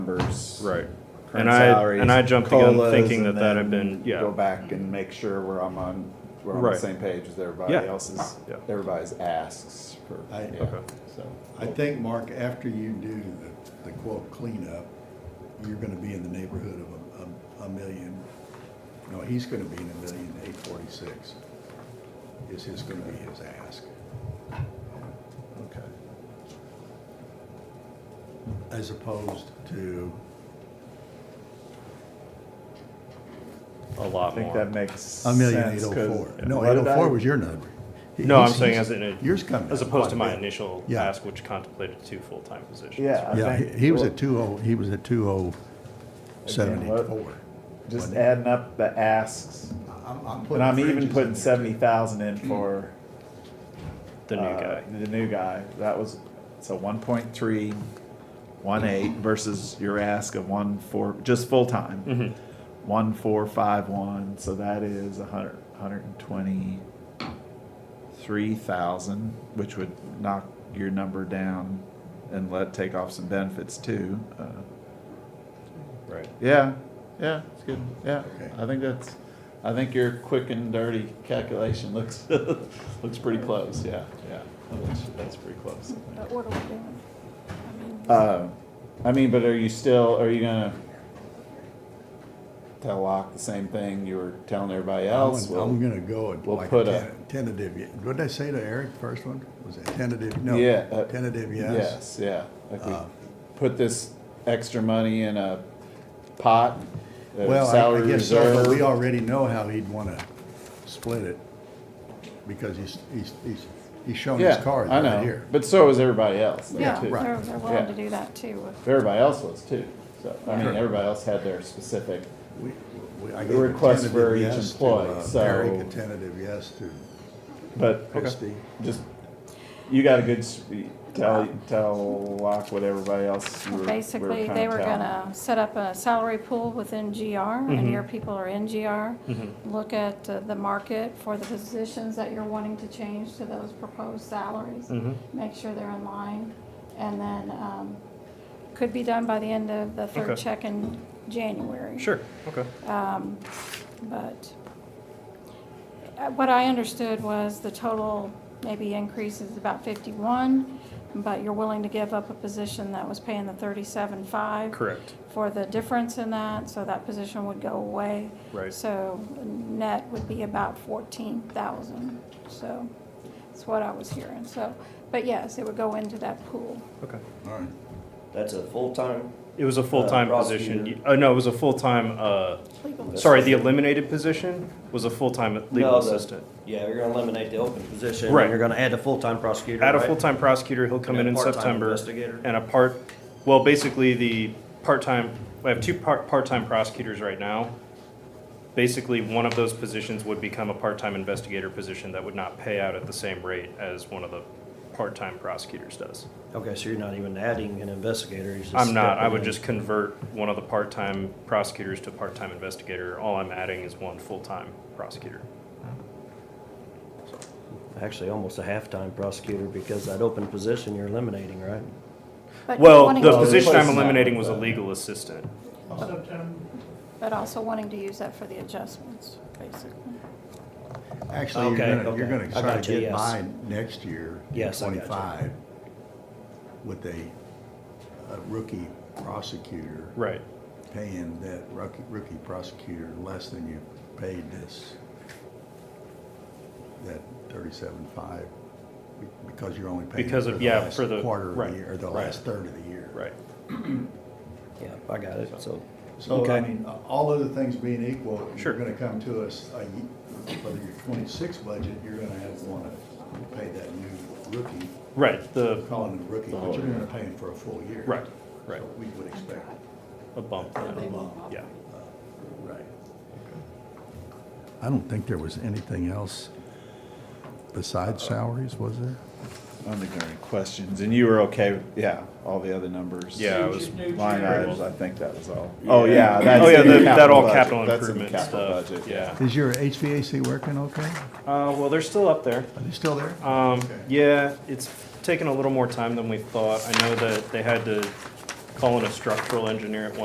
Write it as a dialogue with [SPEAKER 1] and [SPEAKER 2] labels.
[SPEAKER 1] numbers.
[SPEAKER 2] Right.
[SPEAKER 1] current
[SPEAKER 2] And I,
[SPEAKER 1] salaries,
[SPEAKER 2] and I jumped the gun
[SPEAKER 1] COLAs,
[SPEAKER 2] thinking that
[SPEAKER 1] and
[SPEAKER 2] that had
[SPEAKER 1] then
[SPEAKER 2] been, yeah.
[SPEAKER 1] Go back and make sure we're on, on- we're on the
[SPEAKER 2] Right.
[SPEAKER 1] same page as everybody
[SPEAKER 2] Yeah.
[SPEAKER 1] else's,
[SPEAKER 2] Yeah.
[SPEAKER 1] everybody's asks for,
[SPEAKER 3] I-
[SPEAKER 1] yeah,
[SPEAKER 2] Okay.
[SPEAKER 1] so.
[SPEAKER 3] I think, Mark, after you do the, the quote cleanup, you're gonna be in the neighborhood of a, a, a million. No, he's gonna be in a million eight forty-six. Is his gonna be his ask?
[SPEAKER 1] Okay.
[SPEAKER 3] As opposed to,
[SPEAKER 2] A
[SPEAKER 1] I
[SPEAKER 2] lot
[SPEAKER 1] think that
[SPEAKER 2] more.
[SPEAKER 1] makes.
[SPEAKER 3] a million eight
[SPEAKER 1] sense,
[SPEAKER 3] oh
[SPEAKER 1] 'cause
[SPEAKER 3] four. No,
[SPEAKER 1] what
[SPEAKER 3] eight
[SPEAKER 1] did
[SPEAKER 3] oh four
[SPEAKER 1] I-
[SPEAKER 3] was your number.
[SPEAKER 2] No, I'm
[SPEAKER 3] He's-
[SPEAKER 2] saying
[SPEAKER 3] he's-
[SPEAKER 2] as in, a-
[SPEAKER 3] Yours coming.
[SPEAKER 2] as
[SPEAKER 3] down
[SPEAKER 2] opposed to
[SPEAKER 3] quite
[SPEAKER 2] my
[SPEAKER 3] a bit.
[SPEAKER 2] initial
[SPEAKER 3] Yeah.
[SPEAKER 2] ask, which contemplated two full-time positions.
[SPEAKER 1] Yeah. I
[SPEAKER 3] Yeah,
[SPEAKER 1] think-
[SPEAKER 3] he, he was
[SPEAKER 1] well-
[SPEAKER 3] at two oh, he was at two oh seventy-four.
[SPEAKER 1] Just
[SPEAKER 3] wasn't he?
[SPEAKER 1] adding up the asks,
[SPEAKER 3] I'm, I'm putting
[SPEAKER 1] and I'm even
[SPEAKER 3] fringes in
[SPEAKER 1] putting
[SPEAKER 3] there, too.
[SPEAKER 1] seventy thousand in for.
[SPEAKER 2] Mm. The new
[SPEAKER 1] uh,
[SPEAKER 2] guy.
[SPEAKER 1] The new guy, that was, so one point three, one eight versus your ask of one four, just full-time.
[SPEAKER 2] Mhm.
[SPEAKER 1] one four five one so that is a hundred hundred and twenty three thousand which would knock your number down and let take off some benefits too uh,
[SPEAKER 2] Right.
[SPEAKER 1] yeah yeah it's good yeah
[SPEAKER 3] Okay.
[SPEAKER 1] i think that's i think your quick and dirty calculation looks looks pretty close yeah yeah that's, that's pretty close
[SPEAKER 4] But what are we doing? I mean,
[SPEAKER 1] uh, I mean, but are you still, are you gonna tell Locke the same thing you were telling everybody
[SPEAKER 3] I'm
[SPEAKER 1] else?
[SPEAKER 3] gonna- I'm
[SPEAKER 1] Well,
[SPEAKER 3] gonna go at
[SPEAKER 1] we'll
[SPEAKER 3] like
[SPEAKER 1] put
[SPEAKER 3] a
[SPEAKER 1] a-
[SPEAKER 3] ten- tentative, ye- what did I say to Eric, first one? Was it tentative, no,
[SPEAKER 1] Yeah, uh,
[SPEAKER 3] tentative yes?
[SPEAKER 1] Yes, yeah, like we
[SPEAKER 3] Uh,
[SPEAKER 1] put this extra money in a pot, a
[SPEAKER 3] Well, I- I
[SPEAKER 1] salary
[SPEAKER 3] guess so, but we
[SPEAKER 1] reserve.
[SPEAKER 3] already know how he'd wanna split it, because he's, he's, he's, he's showing his
[SPEAKER 1] Yeah,
[SPEAKER 3] cards
[SPEAKER 1] I
[SPEAKER 3] right
[SPEAKER 1] know,
[SPEAKER 3] here.
[SPEAKER 1] but so is everybody else there
[SPEAKER 4] Yeah,
[SPEAKER 1] too.
[SPEAKER 3] right.
[SPEAKER 4] they're, they're willing to
[SPEAKER 1] Yeah.
[SPEAKER 4] do that too.
[SPEAKER 1] Everybody else was too, so, I mean,
[SPEAKER 2] Sure.
[SPEAKER 1] everybody else had their specific,
[SPEAKER 3] We- we- I
[SPEAKER 1] The
[SPEAKER 3] gave a
[SPEAKER 1] request for
[SPEAKER 3] tentative
[SPEAKER 1] each
[SPEAKER 3] yes to,
[SPEAKER 1] employee,
[SPEAKER 3] uh,
[SPEAKER 1] so-
[SPEAKER 3] Eric, a tentative yes to
[SPEAKER 1] but
[SPEAKER 3] Christie.
[SPEAKER 1] just, you got a good, s- tell, tell Locke what everybody else you were- we were
[SPEAKER 4] Basically,
[SPEAKER 1] kinda Mm-hmm.
[SPEAKER 4] they were
[SPEAKER 1] telling.
[SPEAKER 4] gonna set up a salary pool within GR, and your people are in GR.
[SPEAKER 1] Mm-hmm.
[SPEAKER 4] Look at uh, the market for the positions that you're wanting to change to those proposed salaries.
[SPEAKER 1] Mm.
[SPEAKER 2] Mm-hmm.
[SPEAKER 4] Make sure they're in line, and then, um, could be done by the end of the third
[SPEAKER 2] Okay.
[SPEAKER 4] check in January.
[SPEAKER 2] Sure, okay.
[SPEAKER 4] Um, But uh, what I understood was the total maybe increase is about 51, but you're willing to give up a position that was paying the 37.5.
[SPEAKER 2] Correct.
[SPEAKER 4] For the difference in that, so that position would go away.
[SPEAKER 2] Right.
[SPEAKER 4] So net would be about 14,000. So that's what I was hearing. So, but yes, it would go into that pool.
[SPEAKER 2] Okay.
[SPEAKER 3] All right.
[SPEAKER 5] That's a full-time,
[SPEAKER 2] It
[SPEAKER 1] Uh,
[SPEAKER 2] was a full-time position.
[SPEAKER 5] prosecutor.
[SPEAKER 2] Uh, no, it was a full-time, uh,
[SPEAKER 4] Legal.
[SPEAKER 2] sorry, the eliminated position was a full-time legal
[SPEAKER 5] No, the-
[SPEAKER 2] assistant.
[SPEAKER 5] yeah, you're gonna eliminate the open position. and
[SPEAKER 2] Right.
[SPEAKER 5] You're gonna add a full-time prosecutor,
[SPEAKER 2] Add a
[SPEAKER 5] right?
[SPEAKER 2] full-time prosecutor, he'll come in
[SPEAKER 5] And a
[SPEAKER 2] in
[SPEAKER 5] part-time
[SPEAKER 2] September.
[SPEAKER 5] investigator.
[SPEAKER 2] And a part, well, basically the part-time, I have two part, part-time prosecutors right now. Basically, one of those positions would become a part-time investigator position that would not pay out at the same rate as one of the part-time prosecutors does.
[SPEAKER 5] Okay, so you're not even adding an investigator, you're just.
[SPEAKER 2] I'm not, I
[SPEAKER 5] stepping
[SPEAKER 2] would
[SPEAKER 5] in.
[SPEAKER 2] just convert one of the part-time prosecutors to part-time investigator. All I'm adding is one full-time prosecutor.
[SPEAKER 5] Actually, almost a half-time prosecutor, because that open position you're eliminating, right?
[SPEAKER 4] But you're
[SPEAKER 2] Well,
[SPEAKER 4] wanting
[SPEAKER 2] the
[SPEAKER 4] to-
[SPEAKER 2] position I'm
[SPEAKER 1] replace that
[SPEAKER 2] eliminating
[SPEAKER 1] with
[SPEAKER 2] was a
[SPEAKER 1] that.
[SPEAKER 2] legal assistant.
[SPEAKER 4] But also wanting to use that for the adjustments, basically.
[SPEAKER 3] Actually, you're
[SPEAKER 5] Okay,
[SPEAKER 3] gonna, you're
[SPEAKER 5] okay.
[SPEAKER 3] gonna
[SPEAKER 5] I
[SPEAKER 3] try
[SPEAKER 5] got
[SPEAKER 3] to
[SPEAKER 5] you,
[SPEAKER 3] get
[SPEAKER 5] yes.
[SPEAKER 3] by next year, in
[SPEAKER 5] Yes, I got you.
[SPEAKER 3] twenty-five, with a a rookie prosecutor.
[SPEAKER 2] Right.
[SPEAKER 3] Paying that rookie, rookie prosecutor less than you paid this, that thirty-seven-five, because you're only paying.
[SPEAKER 2] Because
[SPEAKER 3] for
[SPEAKER 2] of-
[SPEAKER 3] the
[SPEAKER 2] yeah,
[SPEAKER 3] last
[SPEAKER 2] for the-
[SPEAKER 3] Quarter of
[SPEAKER 2] right,
[SPEAKER 3] the year, or the
[SPEAKER 2] right.
[SPEAKER 3] last third of the year.
[SPEAKER 2] Right.
[SPEAKER 5] Yeah, I got it, so.
[SPEAKER 3] So, I
[SPEAKER 5] Okay.
[SPEAKER 3] mean, all other things being equal,
[SPEAKER 2] Sure.
[SPEAKER 3] you're gonna come to us, uh, you- whether your twenty-six budget, you're gonna have, wanna pay that new rookie,
[SPEAKER 2] Right, the,
[SPEAKER 3] calling him a rookie, but you're gonna pay him for a full year.
[SPEAKER 2] Right, right.
[SPEAKER 3] So We would expect
[SPEAKER 2] a bump.
[SPEAKER 3] a bump.
[SPEAKER 2] Yeah.
[SPEAKER 3] Right. I don't think there was anything else besides salaries, was there?
[SPEAKER 1] I don't think there are any questions, and you were okay, with- yeah, all the the numbers.
[SPEAKER 2] Yeah, I was.
[SPEAKER 1] Line items, I think that was all. Oh, yeah. that's
[SPEAKER 2] Oh, yeah,
[SPEAKER 1] in the
[SPEAKER 2] that, that all
[SPEAKER 1] budget.
[SPEAKER 2] capital
[SPEAKER 1] That's in the
[SPEAKER 2] improvement
[SPEAKER 1] capital
[SPEAKER 2] stuff,
[SPEAKER 1] budget,
[SPEAKER 2] yeah.
[SPEAKER 3] Is your HVAC working okay?
[SPEAKER 2] Uh, well, they're still up there.
[SPEAKER 3] Are they still there?
[SPEAKER 2] Um, yeah, it's taken a little more time than we thought. I know that they had to calling a structural engineer at one.